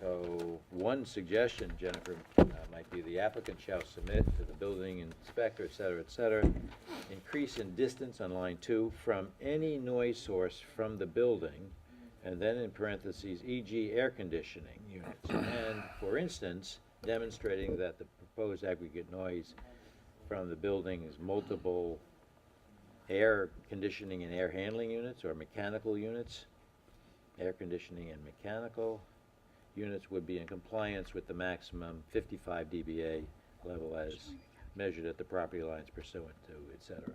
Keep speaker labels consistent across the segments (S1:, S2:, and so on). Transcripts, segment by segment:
S1: So, one suggestion, Jennifer, uh, might be the applicant shall submit to the building inspector, et cetera, et cetera, increase in distance on line two from any noise source from the building, and then in parentheses, e.g. air conditioning units. And, for instance, demonstrating that the proposed aggregate noise from the building is multiple air conditioning and air handling units or mechanical units. Air conditioning and mechanical units would be in compliance with the maximum 55 dBA level as measured at the property lines pursuant to, et cetera.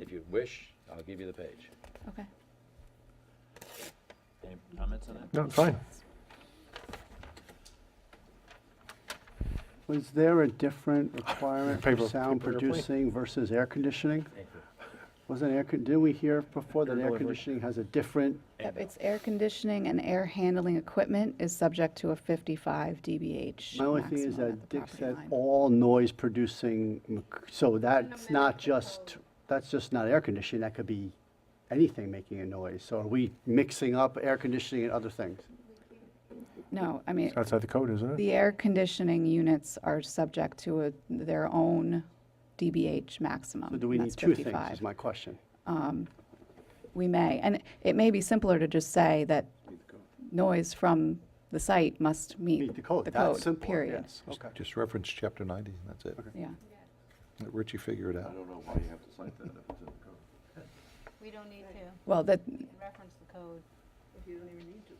S1: If you wish, I'll give you the page.
S2: Okay.
S1: Any comments on that?
S3: No, fine.
S4: Was there a different requirement for
S3: Paper-
S4: sound
S3: paper airplane.
S4: producing versus air conditioning?
S1: Thank you.
S4: Wasn't air, con- didn't we hear before that
S1: Air
S4: air
S1: delivery.
S4: conditioning has a different,
S2: Yep, It's air conditioning and air handling equipment is subject to a 55 dBH
S4: my only thing is
S2: maximum at
S4: that
S2: the
S4: Dick
S2: property
S4: said
S2: line.
S4: all noise producing, mc- so that's not just, that's just not air conditioning, that could be anything making a noise. So are we mixing up air conditioning and other things?
S2: No, I mean,
S3: It's outside the code, isn't it?
S2: the air conditioning units are subject to a- their own dBH maximum.
S4: So do we
S2: and
S4: need
S2: Um, that's
S4: two things
S2: 55.
S4: is my question.
S2: We may, and it may be simpler to just say that noise from the site must meet
S4: Meet the code, that's simple,
S2: period.
S4: yes, okay.
S5: Just reference chapter 90, and that's it.
S2: Yeah,
S5: Let Richie figure it out.
S6: know why you have to cite that if it's in the code.
S7: We don't need to
S2: well, that,
S7: reference the code.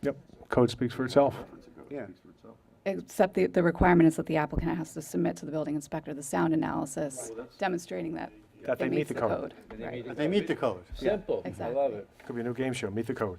S3: Yep, code speaks for itself.
S6: It's a code,
S4: Yeah.
S6: it speaks for itself.
S2: except the, the requirement is that the applicant has to submit to the building inspector the sound analysis demonstrating that
S3: That they
S2: it
S3: meet
S2: meets
S3: the code.
S1: And they
S2: Right.
S1: meet
S4: But They meet the code. yeah.
S1: Simple, I love it.
S3: Could be a new game show, meet the code.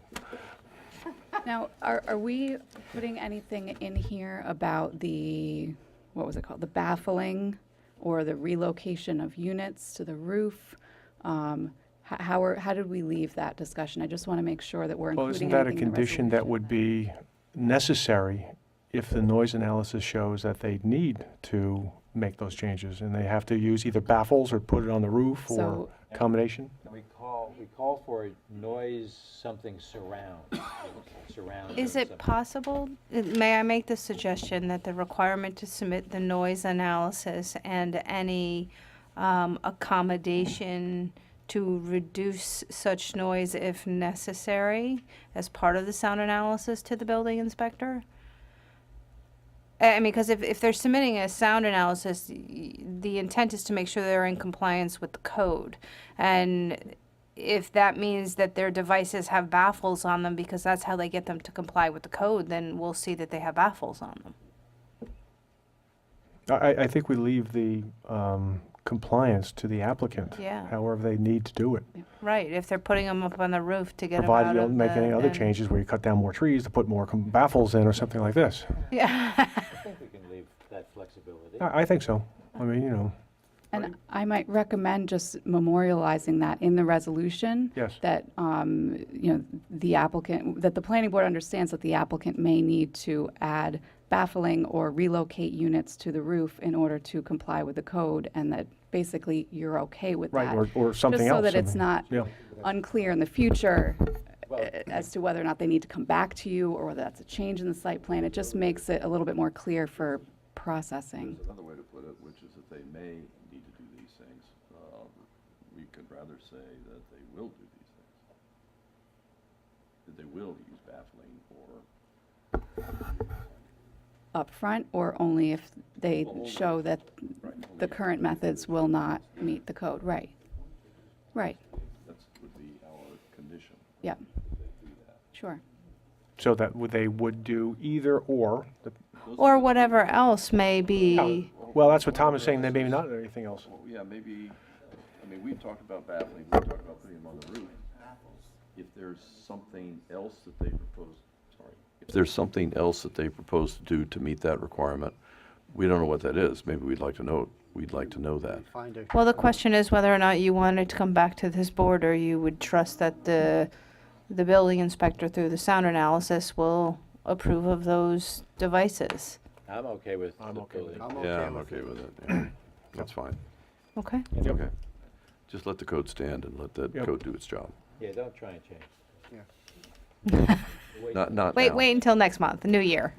S2: Now, are, are we putting anything in here about the, what was it called, the baffling or the relocation of units to the roof? Um, h- How, are- how did we leave that discussion? I just want to make sure that we're
S3: Well, isn't
S2: including
S3: that a
S2: anything in the
S3: condition that
S2: resolution.
S3: would be necessary if the noise analysis shows that they need to make those changes? And they have to use either baffles or put it on the roof or
S2: So-
S3: combination?
S1: And we call, we call for a noise something surround, surround.
S7: Is
S1: or
S7: it
S1: something.
S7: possible, may I make the suggestion that the requirement to submit the noise analysis and any um, accommodation to reduce such noise if necessary as part of the sound analysis to the building inspector? I I mean, because if, if they're submitting a sound analysis, y- the intent is to make sure they're in compliance with the code. And if that means that their devices have baffles on them because that's how they get them to comply with the code, then we'll see that they have baffles on them.
S3: I, I- I think we leave the um, compliance to the applicant.
S7: Yeah.
S3: However they need to do it.
S7: Right, if they're putting them up on the roof to get 'em
S3: Provided
S7: out
S3: you
S7: of
S3: don't make
S7: the-
S3: any other
S7: then-
S3: changes where you cut down more trees to put more com- baffles in or something like this.
S7: Yeah.
S1: I think we can leave that flexibility.
S3: I, I think so. I mean, you know,
S2: And I might recommend just memorializing that in the resolution.
S3: Yes.
S2: That, um, you know, the applicant, that the planning board understands that the applicant may need to add baffling or relocate units to the roof in order to comply with the code, and that basically you're okay with
S3: Right,
S2: that.
S3: or- or something
S2: Just so
S3: else,
S2: that
S3: I
S2: it's
S3: mean,
S2: not
S3: yeah.
S2: unclear in the future uh,
S1: Well-
S2: as to whether or not they need to come back to you, or whether that's a change in the site plan. It just makes it a little bit more clear for processing.
S6: There's another way to put it, which is that they may need to do these things. Uh, We could rather say that they will do these things. That they will use baffling or
S2: upfront or only if they show that the current methods will not meet the code, right? Right,
S6: that would be our condition.
S2: yeah, sure.
S3: so that would- they would do either or. the-
S7: Or whatever else may be,
S3: Well, that's what Tom is saying, they maybe not anything else.
S6: Well, yeah, maybe, I mean, we've talked about baffling, we've talked about putting them on the roof. If there's something else that they propose, sorry. If there's something else that they propose to do to meet that requirement, we don't know what that is. Maybe we'd like to know, we'd like to know that.
S4: Find a
S7: well, the question is whether or not you wanted to come back to this board or you would trust that the, the building inspector through the sound analysis will approve of those devices.
S1: I'm okay with the
S3: I'm okay with
S1: building.
S4: I'm
S6: Yeah,
S4: okay
S6: I'm
S4: with
S6: okay
S4: it.
S6: with it. yeah. That's fine.
S7: Okay?
S6: Okay. Just let the code stand and let that
S3: Yep.
S6: code do its job.
S1: Yeah, don't try and change.
S4: Yeah.
S1: Wait.
S6: Not, not now.
S7: Wait, wait until next month, new year.